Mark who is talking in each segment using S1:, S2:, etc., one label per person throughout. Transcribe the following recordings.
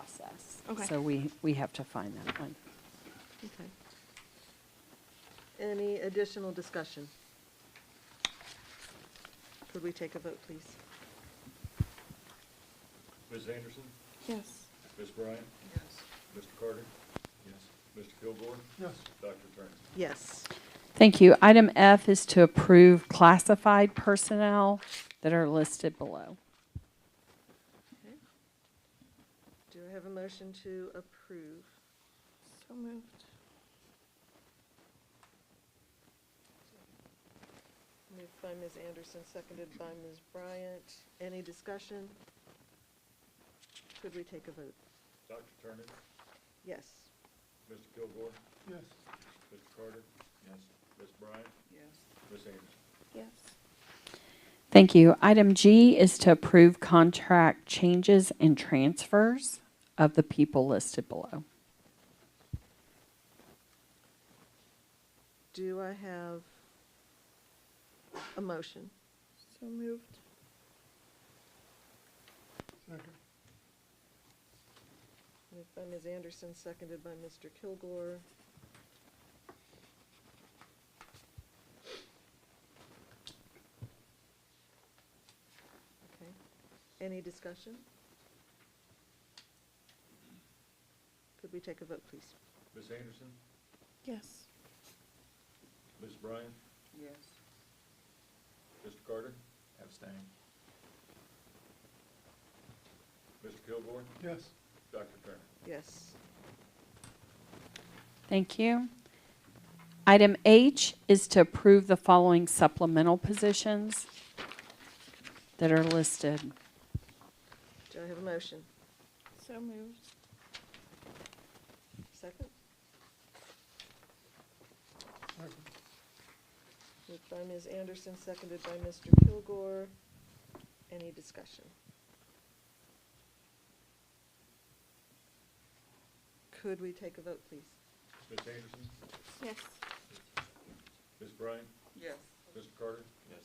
S1: process.
S2: Okay.
S1: So we, we have to find that one.
S2: Okay. Any additional discussion? Could we take a vote, please?
S3: Ms. Anderson?
S2: Yes.
S3: Ms. Bryant? Yes. Mr. Carter? Yes. Mr. Kilgore? Yes. Dr. Turner?
S2: Yes.
S1: Thank you. Item F is to approve classified personnel that are listed below.
S2: Okay. Do I have a motion to approve? So moved. Moved by Ms. Anderson, seconded by Ms. Bryant. Any discussion? Could we take a vote?
S3: Dr. Turner?
S2: Yes.
S3: Mr. Kilgore? Yes. Mr. Carter? Yes. Ms. Bryant? Yes. Ms. Anderson?
S2: Yes.
S1: Thank you. Item G is to approve contract changes and transfers of the people listed below.
S2: Do I have a motion? So moved. Moved by Ms. Anderson, seconded by Mr. Kilgore. Okay. Any discussion? Could we take a vote, please?
S3: Ms. Anderson?
S2: Yes.
S3: Ms. Bryant?
S2: Yes.
S3: Mr. Carter? Abstain. Mr. Kilgore? Yes. Dr. Turner?
S2: Yes.
S1: Thank you. Item H is to approve the following supplemental positions that are listed.
S2: Do I have a motion?
S4: So moved.
S2: Second? Moved by Ms. Anderson, seconded by Mr. Kilgore. Any discussion? Could we take a vote, please?
S3: Ms. Anderson?
S4: Yes.
S3: Ms. Bryant?
S2: Yes.
S3: Mr. Carter? Yes.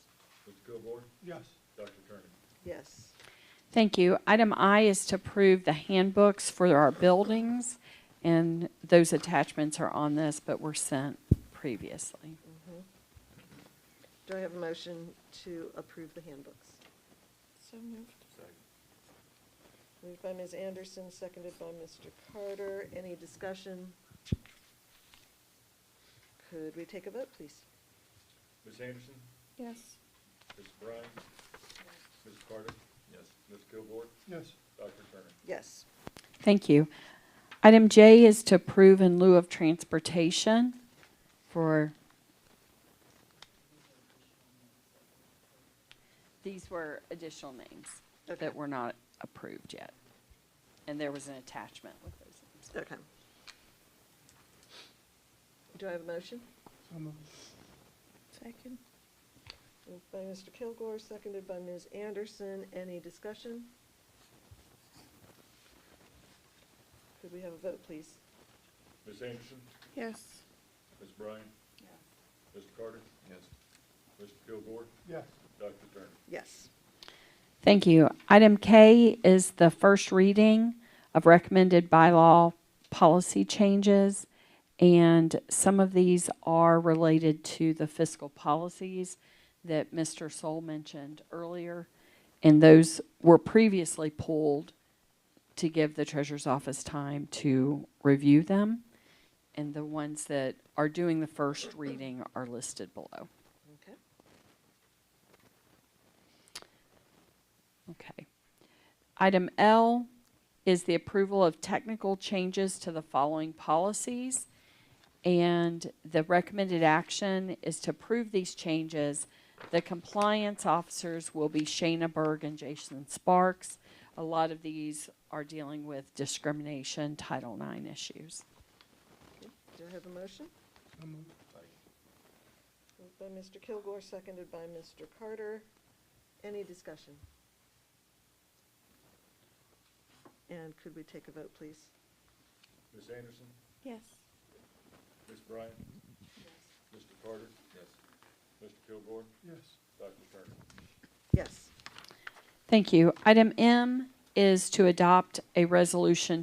S3: Mr. Kilgore?
S5: Yes,
S3: Dr. Turner?
S2: Yes.
S1: Thank you. Item I is to approve the handbooks for our buildings, and those attachments are on this, but were sent previously.
S2: Mhm. Do I have a motion to approve the handbooks?
S4: So moved.
S2: Moved by Ms. Anderson, seconded by Mr. Carter. Any discussion? Could we take a vote, please?
S3: Ms. Anderson?
S4: Yes.
S3: Ms. Bryant? Ms. Carter? Yes. Ms. Kilgore?
S5: yes,
S3: Dr. Turner?
S2: Yes.
S1: Thank you. Item J is to approve in lieu of transportation for, these were additional names
S2: Okay.
S1: that were not approved yet. And there was an attachment with those names.
S2: Okay. Do I have a motion?
S5: so moved.
S4: Second.
S2: Moved by Mr. Kilgore, seconded by Ms. Anderson. Any discussion? Could we have a vote, please?
S3: Ms. Anderson?
S4: Yes.
S3: Ms. Bryant? Mr. Carter? Yes. Mr. Kilgore?
S5: yes,
S3: Dr. Turner?
S2: Yes.
S1: Thank you. Item K is the first reading of recommended bylaw policy changes. And some of these are related to the fiscal policies that Mr. Soul mentioned earlier. And those were previously pulled to give the treasurer's office time to review them. And the ones that are doing the first reading are listed below.
S2: Okay.
S1: Okay. Item L is the approval of technical changes to the following policies. And the recommended action is to approve these changes. The compliance officers will be Shayna Berg and Jason Sparks. A lot of these are dealing with discrimination, Title IX issues.
S2: Okay. Do I have a motion?
S5: so moved.
S2: Moved by Mr. Kilgore, seconded by Mr. Carter. Any discussion? And could we take a vote, please?
S3: Ms. Anderson?
S4: Yes.
S3: Ms. Bryant? Mr. Carter? Yes. Mr. Kilgore?
S5: Yes,
S3: Dr. Turner?
S2: Yes.
S1: Thank you. Item M is to adopt a resolution